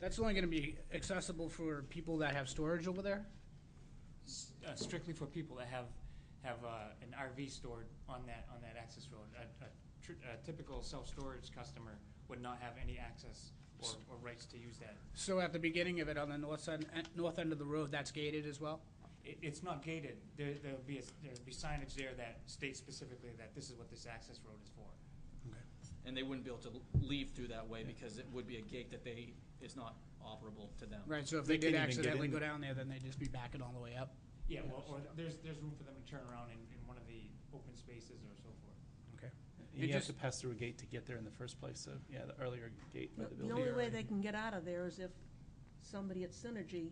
That's only gonna be accessible for people that have storage over there? s- uh, strictly for people that have, have uh, an RV stored on that, on that access road. A- a tr- A typical self-storage customer would not have any access or, or rights to use that. So at the beginning of it, on the north side, eh, north end of the road, that's gated as well? It, it's not gated. There, there'll be, a s- there'll be signage there that states specifically that this is what this access road is for. And they wouldn't be able to leave through that way because it would be a gate that they, is not operable to them. Right, so if they They did can't even get accidentally in go there. down there, then they'd just be backing all the way up? Yeah, well, or there's, there's room for them to turn around in, in one of the open spaces or so forth. Okay. You It have just- to pass through a gate to get there in the first place, so, yeah, the earlier gate by the The building. only way they can get out of there is if somebody at Synergy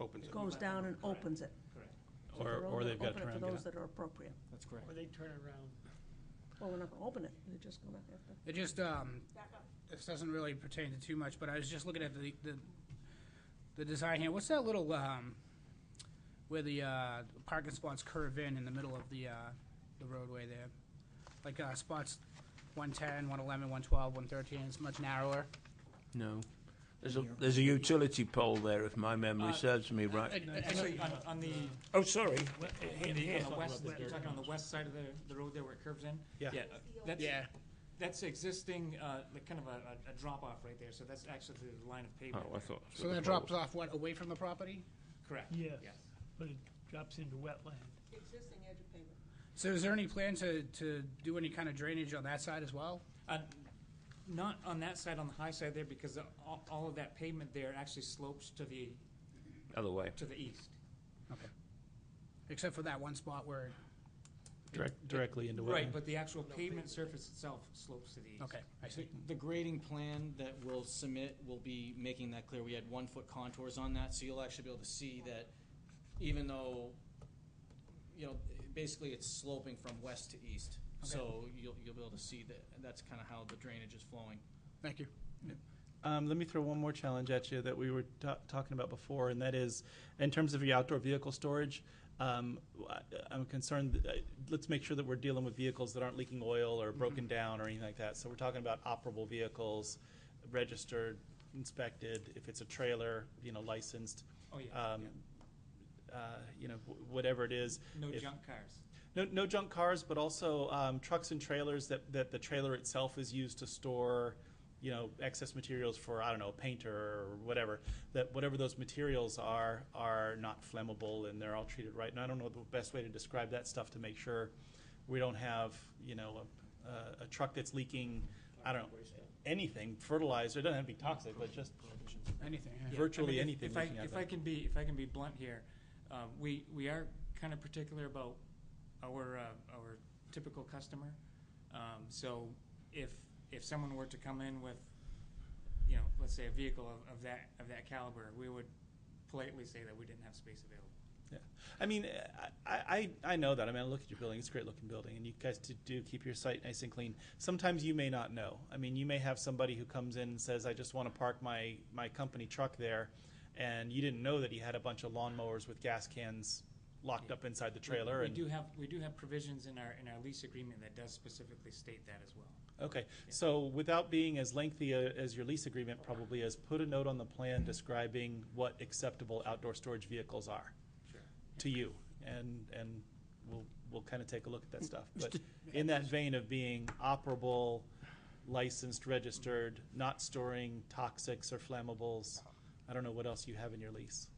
opens it. goes down and Correct. opens it. Correct. So Or, they're or open- they've got to open it turn around and For get those out. that are appropriate. That's correct. Or they turn around. Well, we're not gonna open it, they're just gonna have to. It just, um, this doesn't really pertain to too much, but I was just looking at the, the, the design here. What's that little, um, where the, uh, parking spots curve in in the middle of the, uh, the roadway there? Like, uh, spots 110, 111, 112, 113, it's much narrower. No. There's a, there's a utility pole there, if my memory Uh, serves me I- right. I- I- Actually, on, on the, Oh, sorry. on the- on the west, you're talking on the west side of the, the road there where it curves in? Yeah. uh, That's, Yeah, That's existing, uh, like kind of a, a- a drop-off right there, so that's actually the line of pavement. there. thought. so that drops off, what, away from the property? Correct. Yes. Yes. But it drops into wetland. Existing edge of pavement. So is there any plan to, to do any kind of drainage on that side as well? Uh, Not on that side, on the high side there, because the- all, all of that pavement there actually slopes to the, Other way. to the east. Except for that one spot where, Direct, directly into wetland. Right, but the actual pavement surface itself slopes to the east. okay, I see. The grading plan that we'll submit will be making that clear. We had one-foot contours on that, so you'll actually be able to see that even though, you know, basically it's sloping from west to east. So you'll, you'll be able to see that, that's kind of how the drainage is flowing. Thank you. Um, let me throw one more challenge at you that we were ta- talking about before, and that is in terms of your outdoor vehicle storage. Um, I, I'm concerned. That, uh, let's make sure that we're dealing with vehicles that aren't leaking oil Mm-hmm. or broken down or anything like that. So we're talking about operable vehicles, registered, inspected. If it's a trailer, you know, licensed. Oh, yeah, Um, Uh, you know, w- whatever it is. No if- junk cars. no, no junk cars, but also um, trucks and trailers that, that the trailer itself is used to store, you know, excess materials for I don't know, a painter or whatever. That whatever those materials are are not flammable and they're all treated right. And I don't know the best way to describe that stuff to make sure we don't have you know a, a, a truck that's leaking. I don't know anything fertilizer. It doesn't have to be toxic, but just Anything, yeah. Yeah, I virtually mean, if- anything. If I, leaking out if there. I can be, if I can be blunt here, uh, we, we are kind of particular about our, uh, our typical customer. Um, So if, if someone were to come in with, you know, let's say a vehicle of, of that, of that caliber, we would politely say that we didn't have space available. Yeah. I mean, I, I, I know that. I mean, I look at your building. It's a great looking building, and you guys do, do keep your site nice and clean. Sometimes you may not know. I mean, you may have somebody who comes in and says, I just want to park my, my company truck there, and you didn't know that he had a bunch of lawnmowers with gas cans locked up inside the We- trailer. We and, do have, we do have provisions in our, in our lease agreement that does specifically state that as well. Okay, so without being as lengthy uh, as your lease agreement probably is, put a note on the plan describing what acceptable outdoor storage vehicles are Sure. to you, and, and we'll, we'll kind of take a look at that stuff. But in that vein of being operable, licensed, registered, not storing toxics or flammables, I don't know what else you have in your lease.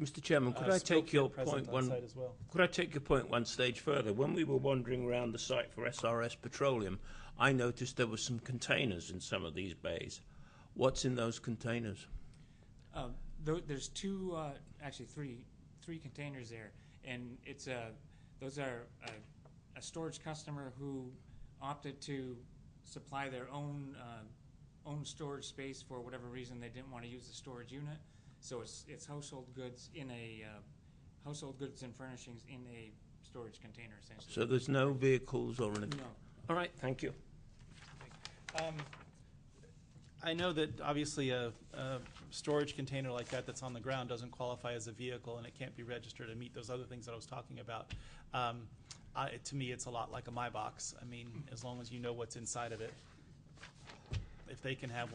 Mr. Chairman, could Uh, I take smoke your present point on one? site as well. Could I take your point one stage further? When we were wandering around the site for SRS Petroleum, I noticed there were some containers in some of these bays. What's in those containers? Um, tho- there's two, uh, actually three, three containers there, and it's a, those are uh, a, a storage customer who opted to supply their own, uh, own storage space for whatever reason they didn't want to use the storage unit. So it's, it's household goods in a, uh, household goods and furnishings in a storage container essentially. So there's no vehicles or anything? No. All right, thank you. Um, I know that obviously a, a storage container like that that's on the ground doesn't qualify as a vehicle and it can't be registered to meet those other things that I was talking about. Um, I, to me, it's a lot like a My Box. I mean, as long as you know what's inside of it. If they can have